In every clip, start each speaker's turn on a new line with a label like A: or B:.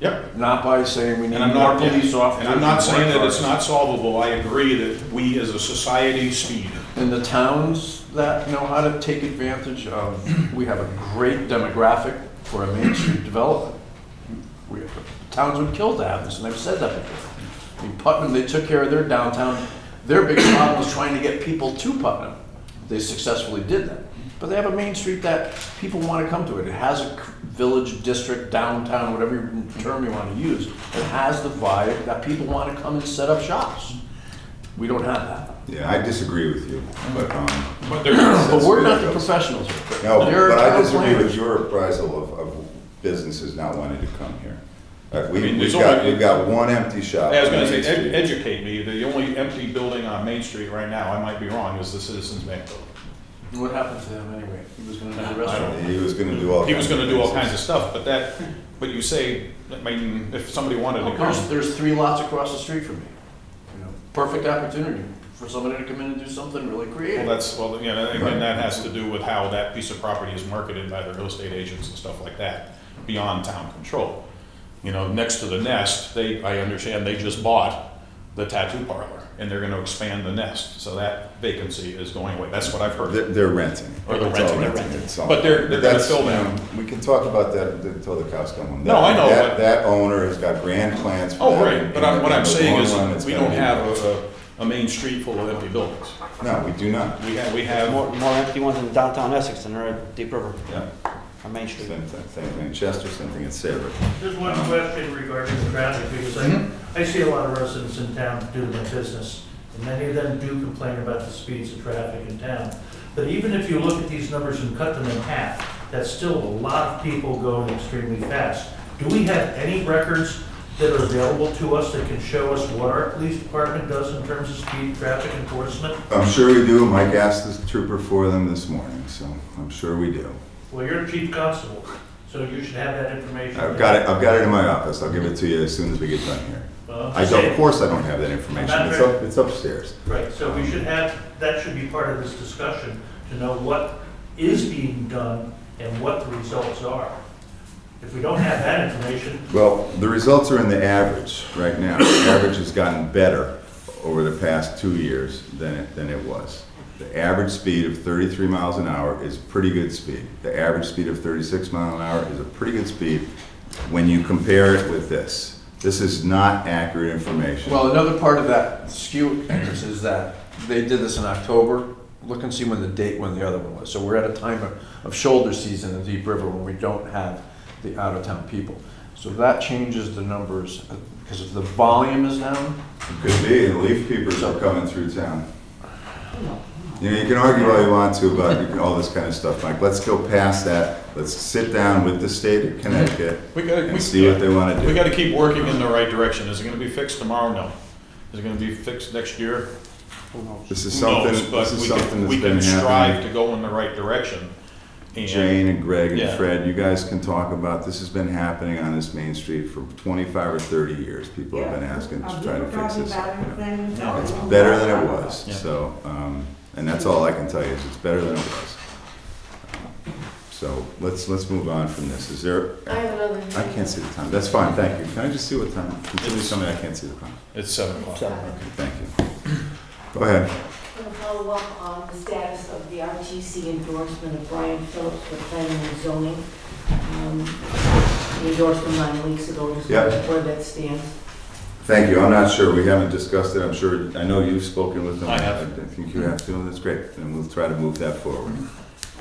A: Yep.
B: not by saying we need
A: And I'm
B: more
A: not, yeah.
B: police officers.
A: and I'm not
B: more
A: saying that it's
B: cars.
A: not solvable, I agree that we as a society speed.
B: And the towns that know how to take advantage of, we have a great demographic for a Main Street development. We- Towns would kill to have this, and I've said that before. I mean, Putnam, they took care of their downtown, their big problem was trying to get people to Putnam. They successfully did that. But they have a Main Street that people want to come to it. It has a village, district, downtown, whatever term you want to use. It has the vibe that people want to come and set up shops. We don't have that.
C: Yeah, I disagree with you, but, um,
A: But there,
B: But we're not the
C: That's-
B: professionals. here.
C: no,
B: There are
C: but I
B: town
C: disagree with
B: planners.
C: your appraisal of, of businesses not wanting to come here. Uh,
A: I
C: we,
A: mean,
C: we've
A: there's
C: got,
A: only-
C: we've got one empty shop.
A: I was gonna
C: on
A: say,
C: Main
A: ed-
C: Street.
A: educate me, the only empty building on Main Street right now, I might be wrong, is the Citizens Bank building.
B: What happened to him anyway? He was gonna do the
A: I
B: restaurant.
A: don't-
C: He was gonna do all.
A: He was
C: kinds
A: gonna do all
C: things.
A: kinds of stuff, but that, but you say, I mean, if somebody wanted to
B: There's,
A: come,
B: there's three lots across the street from me. You know, Perfect opportunity for somebody to come in and do something really
A: well,
B: creative.
A: that's, well, you know, again, that has to do with how that piece of property is marketed by the real estate agents and stuff like that, beyond town control. You know, next to the nest, they, I understand, they just bought the tattoo parlor, and they're gonna expand the nest, so that vacancy is going away, that's what I've heard.
C: They're, they're renting.
A: Or they're
C: It's all
A: renting, they're renting.
C: It's all-
A: But they're- they're gonna
C: that's,
A: fill
C: you know,
A: them.
C: We can talk about that until the cows come home.
A: No, I know,
C: That,
A: but-
C: that owner has got grand plans for
A: Oh,
C: that.
A: right, but I'm, what
C: and
A: I'm
C: in the
A: saying
C: long run,
A: is,
C: it's
A: we
C: gonna
A: don't
C: be-
A: have a, a, a main street full of empty buildings.
C: No, we do not.
A: We have, we have,
D: More, more empty ones in downtown Essex than there are at Deep River
C: Yeah,
D: or Main Street.
C: same, thing- same thing, Chester, same thing in Sabre.
E: There's one question regarding the traffic, because I, I see a lot of residents in town doing their business, and many of them do complain about the speeds of traffic in town. But even if you look at these numbers and cut them in half, that's still a lot of people going extremely fast. Do we have any records that are available to us that can show us what our police department does in terms of speed traffic enforcement?
C: I'm sure we do. Mike asked the trooper for them this morning, so I'm sure we do.
E: Well, you're the chief constable, so you should have that information.
C: I've got it, I've got it in my office. I'll give it to you as soon as we get done here.
E: Well,
C: I don't, of course I don't have that information.
E: Not
C: It's
E: very-
C: up, it's upstairs.
E: Right, so we should have, that should be part of this discussion, to know what is being done and what the results are. If we don't have that information,
C: Well, the results are in the average right now. The average has gotten better over the past two years than it, than it was. The average speed of 33 miles an hour is pretty good speed. The average speed of 36 miles an hour is a pretty good speed when you compare it with this. This is not accurate information.
B: Well, another part of that skew is that they did this in October. Look and see when the date, when the other one was. So we're at a time of, of shoulder season in Deep River when we don't have the out-of-town people. So that changes the numbers, uh, because if the volume is down,
C: Could be, and leaf peepers are coming through town. You know, you can argue all you want to about you- all this kind of stuff, Mike. Let's go past that. Let's sit down with the state of Connecticut
A: we gotta,
C: and see
A: we,
C: what they want to
A: we
C: do.
A: gotta keep working in the right direction. Is it gonna be fixed tomorrow? No. Is it gonna be fixed next year?
D: Who knows?
C: This is
A: Who
C: something,
A: knows? But
C: this is
A: we
C: something
A: can, we
C: that's been
A: can strive
C: happening.
A: to go in the right direction. And
C: Jane and Greg and
A: Yeah.
C: Fred, you guys can talk about, this has been happening on this main street for twenty-five or thirty years. People have been asking to try to fix this. It's better than
A: Yeah.
C: it was, so, um, and that's all I can tell you, is it's better than it was. So let's, let's move on from this. Is there,
F: I have another.
C: I can't see the time. That's fine, thank you. Can I just see what time? Can somebody tell me I can't see the time?
A: it's seven o'clock.
F: I'm
C: Okay, thank you. Go ahead.
F: going to follow up on the status of the RTC endorsement of Brian Phillips for planning and zoning. Um, The endorsement nine weeks ago, just
C: Yeah.
F: where that stands.
C: Thank you. I'm not sure. We haven't discussed it. I'm sure, I know you've spoken with them.
A: I have.
C: I think you have to. That's great. Then we'll try to move that forward.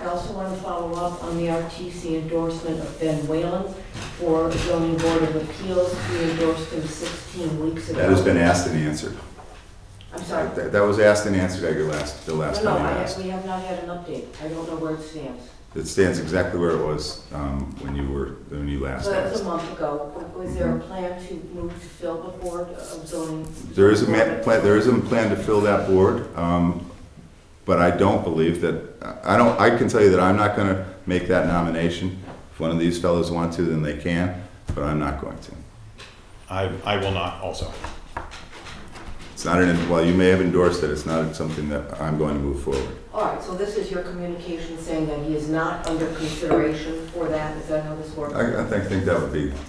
F: I also want to follow up on the RTC endorsement of Ben Whalen for zoning board of appeals. We endorsed him 16 weeks ago.
C: That has been asked and answered.
F: I'm sorry.
C: That that was asked and answered at your last, the
F: No,
C: last
F: no,
C: time you
F: I-
C: asked.
F: we have not had an update. I don't know where it stands.
C: It stands exactly where it was um, when you were, when you last
F: So that was
C: asked.
F: a month ago. Was there a plan to move to fill the board of zoning?
C: There is a ma- plan, there is a plan to fill that board, um, but I don't believe that, I I don't, I can tell you that I'm not gonna make that nomination. If one of these fellows want to, then they can, but I'm not going to.
A: I, I will not also.
C: It's not an, while you may have endorsed it, it's not something that I'm going to move forward.
F: All right, so this is your communication saying that he is not under consideration for that, is that how this works?
C: I, I think, think that would be